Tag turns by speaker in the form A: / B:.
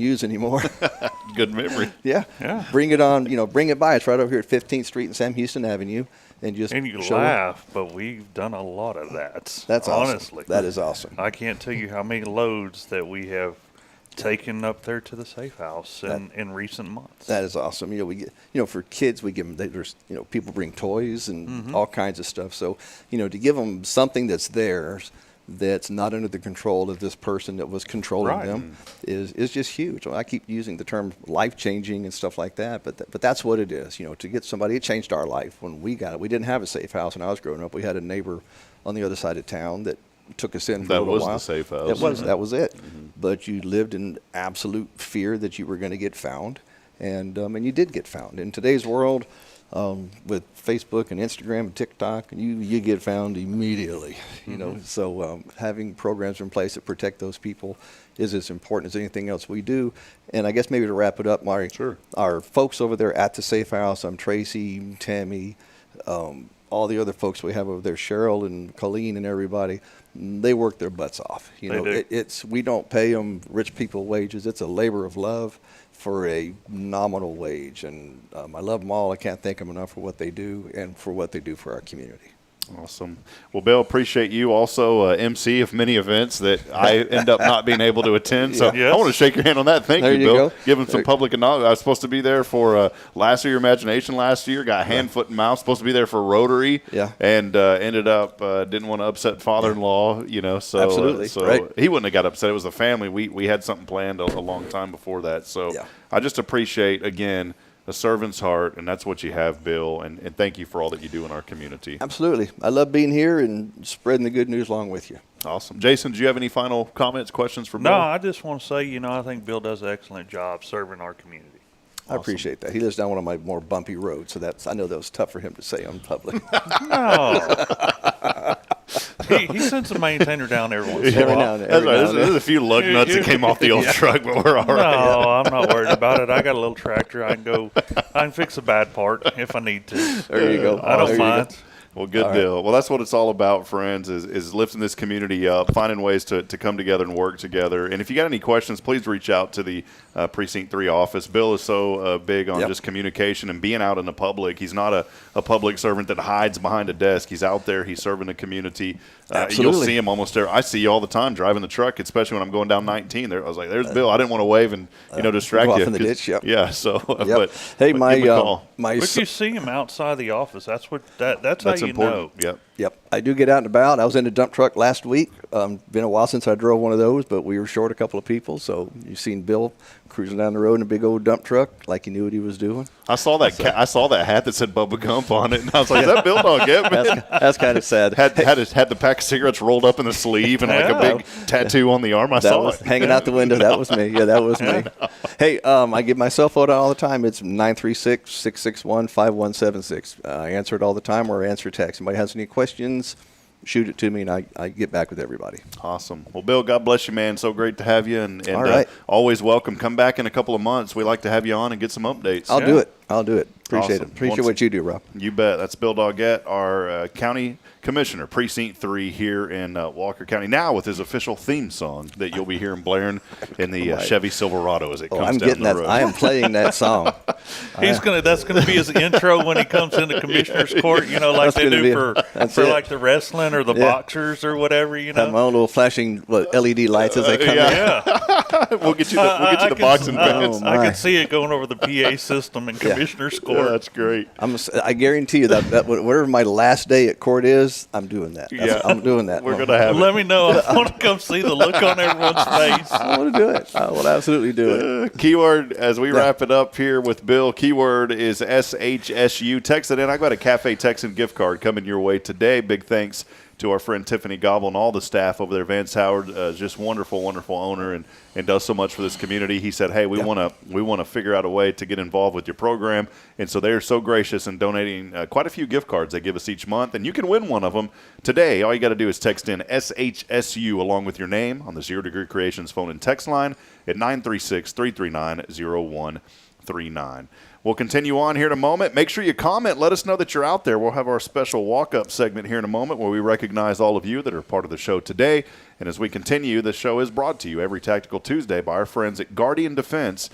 A: use anymore.
B: Good memory.
A: yeah.
C: Yeah.
A: Bring it on, you know, bring it by. It's right over here at 15th Street and Sam Houston Avenue. And just
C: And you
A: show it.
C: laugh, but we've done a lot of that.
A: That's awesome.
C: honestly
A: That is awesome.
C: I can't tell you how many loads that we have taken up there to the safe house in, in recent months.
A: That is awesome. You know, we get, you know, for kids, we give them, they, there's, you know, people bring toys and all kinds of stuff. So, you know, to give them something that's theirs, that's not under the control of this person that was controlling
C: Right.
A: them is, is just huge. I keep using the term life changing and stuff like that, but, th- but that's what it is. You know, to get somebody, it changed our life when we got it. We didn't have a safe house when I was growing up. We had a neighbor on the other side of town that took us in for a
B: That
A: little
B: was the
A: while.
B: safe
A: It
B: house.
A: was
B: Mhm.
A: that was it. But you lived in absolute fear that you were going to get found, and um, and you did get found. In today's world, um, with Facebook and Instagram and TikTok, you you get found immediately. You know,
B: Mm-hmm.
A: so um, having programs in place that protect those people is as important as anything else we do. And I guess maybe to wrap it up, Mari,
B: Sure.
A: our folks over there at the Safe House. I'm Tracy, Tammy, um, all the other folks we have over there, Cheryl and Colleen and everybody. They work their butts off. You
C: They
A: know,
C: do.
A: It, it's we don't pay them rich people wages. It's a labor of love for a nominal wage, and um, I love them all. I can't thank them enough for what they do and for what they do for our community.
B: Awesome. Well, Bill, appreciate you also uh, MC of many events that I end up not being able to attend. So
C: Yeah.
B: I want to shake your hand on that. Thank
A: There you
B: Bill.
A: go.
B: Give him some
A: There-
B: public acknowledgement. I was supposed to be there for uh, last year, Imagination last year. Got hand, foot, and mouth. Supposed to be there for Rotary.
A: Yeah.
B: And uh, ended up uh, didn't want to upset father-in-law. You know, so uh,
A: Absolutely.
B: so
A: Right.
B: he wouldn't have got upset. It was the family. We we had something planned a, a long time before that. So
A: Yeah.
B: I just appreciate again. A servant's heart, and that's what you have, Bill. And, and thank you for all that you do in our community.
A: Absolutely, I love being here and spreading the good news along with you.
B: Awesome. Jason, do you have any final comments, questions for Bill?
C: no, I just want to say, you know, I think Bill does an excellent job serving our community.
A: I appreciate that. He lives down one of my more bumpy roads, so that's I know that was tough for him to say on public.
C: No. he, he sends a maintainer down every once in a
A: Every
C: while.
A: now and then.
B: That's right. There's,
A: and then.
B: there's a few lug nuts that came off the old truck, but we're all
C: No,
B: right.
C: I'm not worried about it. I got a little tractor. I can go. I can fix a bad part if I need to.
A: There you go.
C: I
A: There
C: don't
A: you go.
C: mind.
B: Well, good deal. Well, that's what it's all about, friends, is, is lifting this community up, finding ways to, to come together and work together. And if you got any questions, please reach out to the uh, Precinct 3 office. Bill is so uh, big on
A: Yep.
B: just communication and being out in the public. He's not a, a public servant that hides behind a desk. He's out there. He's serving the community. Uh, you'll
A: Absolutely.
B: see him almost there. I see you all the time driving the truck, especially when I'm going down 19. There, I was like, there's Bill. I didn't want to wave and, you know, distract
A: Uh, go off
B: you.
A: in the
B: 'cause-
A: ditch, yep.
B: Yeah, so. But,
A: Yep.
B: but
A: hey,
B: give
A: my
B: him a
A: uh,
B: call.
A: my
C: If you
A: son,
C: see him outside the office, that's what that that's,
B: That's
C: how you
B: important.
C: know.
B: Yep.
A: yep, I do get out and about. I was in a dump truck last week. Um, been a while since I drove one of those, but we were short a couple of people. So you've seen Bill cruising down the road in a big old dump truck, like he knew what he was doing.
B: I saw that. Ca- I saw that hat that said Bubba Gump on it, and I was like, "That Bill Dog, yeah, man."
A: That's kind of sad.
B: Had had, his, had the pack of cigarettes rolled up in the sleeve and like a big tattoo on the arm. I
A: that
B: saw
A: was
B: it.
A: hanging out the window. That was me. Yeah, that was me. Hey, um, I give my cell phone out all the time. It's 936 661 5176. I answer it all the time or answer text. Somebody has any questions, shoot it to me and I, I get back with everybody.
B: Awesome. Well, Bill, God bless you, man. So great to have you, and, and
A: All right.
B: uh, always welcome. Come back in a couple of months. We like to have you on and get some updates.
A: I'll
C: Yeah.
A: do it. I'll do it. Appreciate
B: Awesome.
A: it. Appreciate
B: Once-
A: what you do, Rob.
B: You bet. That's Bill Doggett, our uh, county commissioner, precinct three here in uh, Walker County. Now with his official theme song that you'll be hearing blaring in the uh, Chevy Silverado as it
A: Oh,
B: comes
A: I'm
B: down
A: getting
B: the
A: that.
B: road.
A: I am playing that song.
C: He's gonna. That's gonna be his intro when he comes into commissioner's court. You know, like
A: That's
C: they
A: gonna
C: do
A: be-
C: for
A: that's
C: for
A: it.
C: like the wrestling or the
A: Yeah.
C: boxers or whatever. You
A: Have my
C: know.
A: own little flashing what, LED lights as I come
B: Uh, yeah.
A: in.
C: Yeah.
B: we'll get you the, we'll get you the
C: could-
B: boxing
C: I-
B: fans.
A: Oh,
C: I
A: my.
C: could see it going over the PA system and commissioner's
B: Yeah,
C: court.
B: that's great.
A: I'm, s- I guarantee you that, that whatever my last day at court is, I'm doing that. That's-
B: Yeah.
A: I'm doing that.
B: We're gonna have it.
C: Let me know. I want to come see the look on everyone's face.
A: I want to do it. I will absolutely do it.
B: Uh, keyword as we wrap it up here with Bill. Keyword is SHSU. Text it in. I got a Cafe Texan gift card coming your way today. Big thanks to our friend Tiffany Gobble and all the staff over there. Vance Howard, uh, is just wonderful, wonderful owner, and, and does so much for this community. He said, "Hey, we
A: Yeah.
B: want to we want to figure out a way to get involved with your program," and so they are so gracious in donating uh, quite a few gift cards they give us each month, and you can win one of them today. All you got to do is text in SHSU along with your name on the Zero Degree Creations phone and text line at 936 339 0133. 939. We'll continue on here in a moment. Make sure you comment. Let us know that you're out there. We'll have our special walk up segment here in a moment where we recognize all of you that are part of the show today. And as we continue, the show is brought to you every Tactical Tuesday by our friends at Guardian Defense.